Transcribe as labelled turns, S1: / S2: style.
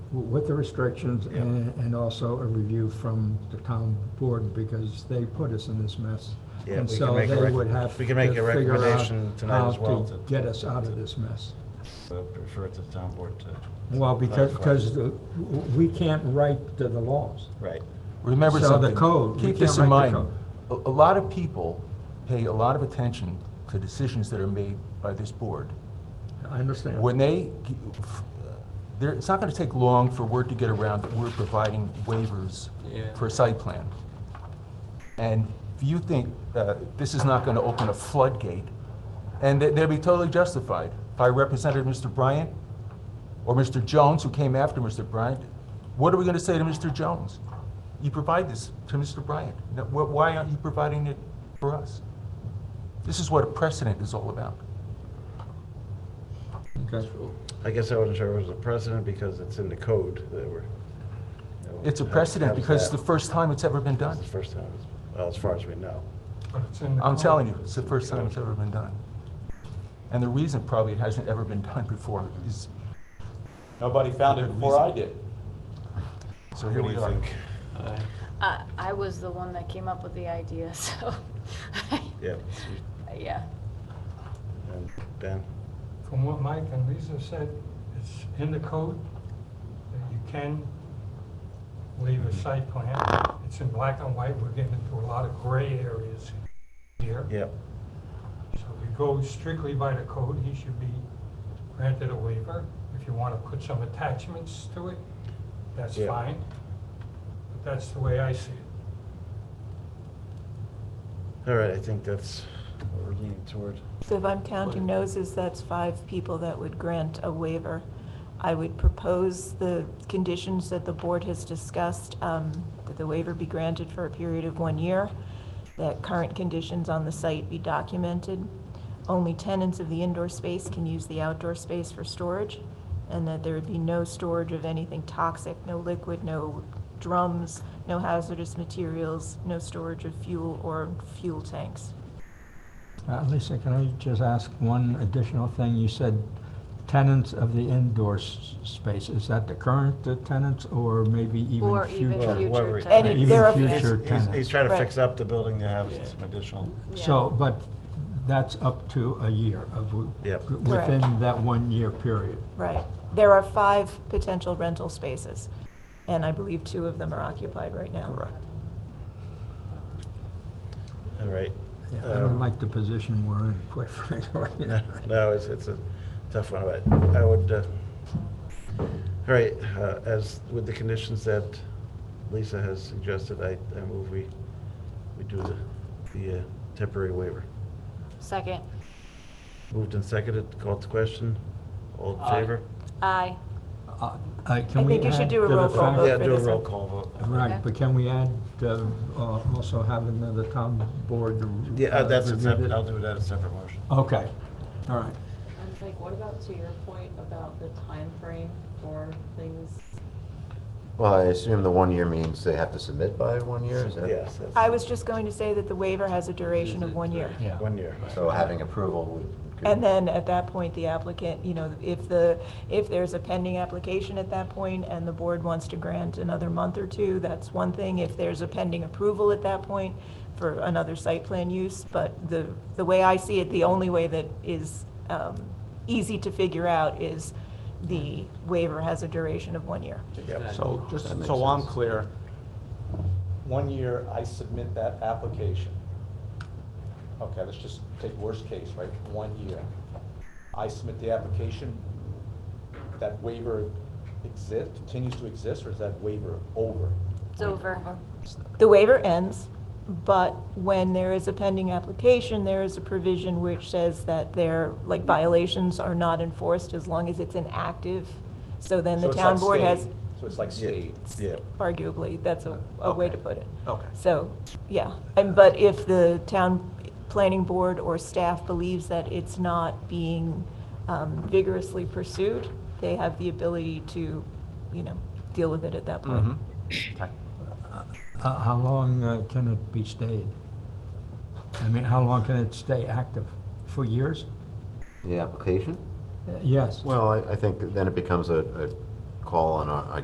S1: with the restrictions and, and also a review from the town board because they put us in this mess.
S2: Yeah,
S1: And
S2: we
S1: so
S2: can make a
S1: they
S2: rec-
S1: would have
S2: we can make
S1: to
S2: a
S1: figure out
S2: recommendation tonight
S1: how
S2: as well
S1: to
S2: to-
S1: Get us out of this mess.
S2: So prefer to the town board to.
S1: Well, because,
S2: Clarify.
S1: because the- w- we can't write to the laws.
S2: Right.
S3: Remember
S1: So the
S3: something.
S1: code, we
S3: Keep this in
S1: can't write
S3: mind.
S1: the
S3: A, a lot of people pay a lot of attention to decisions that are made by this board.
S1: I understand.
S3: When they, g- f- there, it's not gonna take long for word to get around that we're providing waivers
S4: Yeah.
S3: for a site plan. And if you think, uh, this is not gonna open a floodgate, and they- they'll be totally justified. If I represented Mr. Bryant or Mr. Jones, who came after Mr. Bryant, what are we gonna say to Mr. Jones? You provide this to Mr. Bryant. No, wh- Why aren't you providing it for us? This is what a precedent is all about.
S1: Okay.
S2: I guess I wasn't sure it was a precedent because it's in the code that we're. you know,
S3: It's a
S2: how-
S3: precedent
S2: how's
S3: because it's
S2: that?
S3: the first time it's ever been done.
S2: It's the first time, it's- well, as far as we know.
S3: I'm telling you, it's the first time it's ever been done. And the reason probably it hasn't ever been done before is,
S5: Nobody found it before I did.
S3: so here we are.
S4: Aye.
S6: I, I was the one that came up with the idea, so.
S2: Yeah.
S6: Yeah.
S2: And Ben?
S7: From what Mike and Lisa said, it's in the code that you can leave a site plan. It's in black and white, we're getting into a lot of gray areas here.
S2: Yep.
S7: So if you go strictly by the code, he should be granted a waiver. If you want to put some attachments to it, that's
S2: Yeah.
S7: fine. But that's the way I see it.
S2: All right, I think that's what we're leaning toward.
S8: So if I'm counting noses, that's five people that would grant a waiver. I would propose the conditions that the board has discussed, um, that the waiver be granted for a period of one year, that current conditions on the site be documented, only tenants of the indoor space can use the outdoor space for storage, and that there would be no storage of anything toxic, no liquid, no drums, no hazardous materials, no storage of fuel or fuel tanks.
S1: Uh, Lisa, can I just ask one additional thing? You said tenants of the indoor s- space. Is that the current uh, tenants or maybe even
S6: Or even
S2: Well,
S1: future?
S6: future
S2: whoever-
S6: tenants.
S8: Any-
S2: Even
S8: there are-
S2: future
S8: He's-
S2: tenants. He's, he's trying to
S8: Right.
S2: fix up the building to have
S4: Yeah.
S2: some additional,
S1: So,
S6: Yeah.
S1: but that's up to a year of, w-
S2: Yep.
S1: within that one-year period.
S8: Right. There are five potential rental spaces, and I believe two of them are occupied right now.
S3: Correct.
S2: all right.
S1: Yeah, I
S2: Um,
S1: don't like the position we're in, quite frankly.
S2: No, no, it's, it's a tough one, but I would, uh, all right, uh, as with the conditions that Lisa has suggested, I, I move we, we do the, the uh, temporary waiver.
S6: Second,
S2: Moved and seconded, called to question, all in
S8: Uh,
S4: Aye.
S2: favor?
S6: aye.
S1: Uh, I can
S8: I
S1: we
S8: think you should
S1: add
S8: do
S1: to
S8: a
S1: the
S8: roll call
S1: fact-
S8: vote
S2: Yeah,
S8: for
S2: do a
S8: this
S2: roll
S8: one.
S2: call vote.
S6: Okay.
S1: Right, but can we add, uh, uh, also have another town board? to,
S2: Yeah,
S1: uh,
S2: uh, that's, a
S1: review
S2: sep-
S1: this?
S2: I'll do that as a separate motion.
S1: Okay, all right.
S9: And like, what about to your point about the time frame for things?
S10: Well, I assume the one year means they have to submit by one year, is that?
S2: Yes, that's.
S8: I was just going to say that the waiver has a duration of one year.
S4: Yeah.
S2: One year.
S10: So having approval would. could-
S8: And then at that point, the applicant, you know, if the, if there's a pending application at that point and the board wants to grant another month or two, that's one thing. If there's a pending approval at that point for another site plan use, but the, the way I see it, the only way that is um, easy to figure out is the waiver has a duration of one year.
S2: Yep.
S5: So, just
S10: That makes
S5: so I'm
S10: sense.
S5: clear, one year I submit that application. Okay, let's just take worst case, right, one year. I submit the application, that waiver exist, continues to exist, or is that waiver over?
S6: It's over.
S8: The waiver ends, but when there is a pending application, there is a provision which says that their, like violations are not enforced as long as it's inactive. So then
S5: So
S8: the
S5: it's
S8: town
S5: like
S8: board has,
S5: stayed. So it's like stayed.
S2: Yeah.
S8: arguably, that's a, a way to put it.
S5: Okay.
S8: So, yeah, and, but if the town planning board or staff believes that it's not being um, vigorously pursued, they have the ability to, you know, deal with it at that point.
S5: Mm-hmm.
S1: Uh, How long uh, can it be stayed? I mean, how long can it stay active? For years?
S10: The application?
S1: Uh, Yes.
S10: Well, I, I think then it becomes a, a call on our, I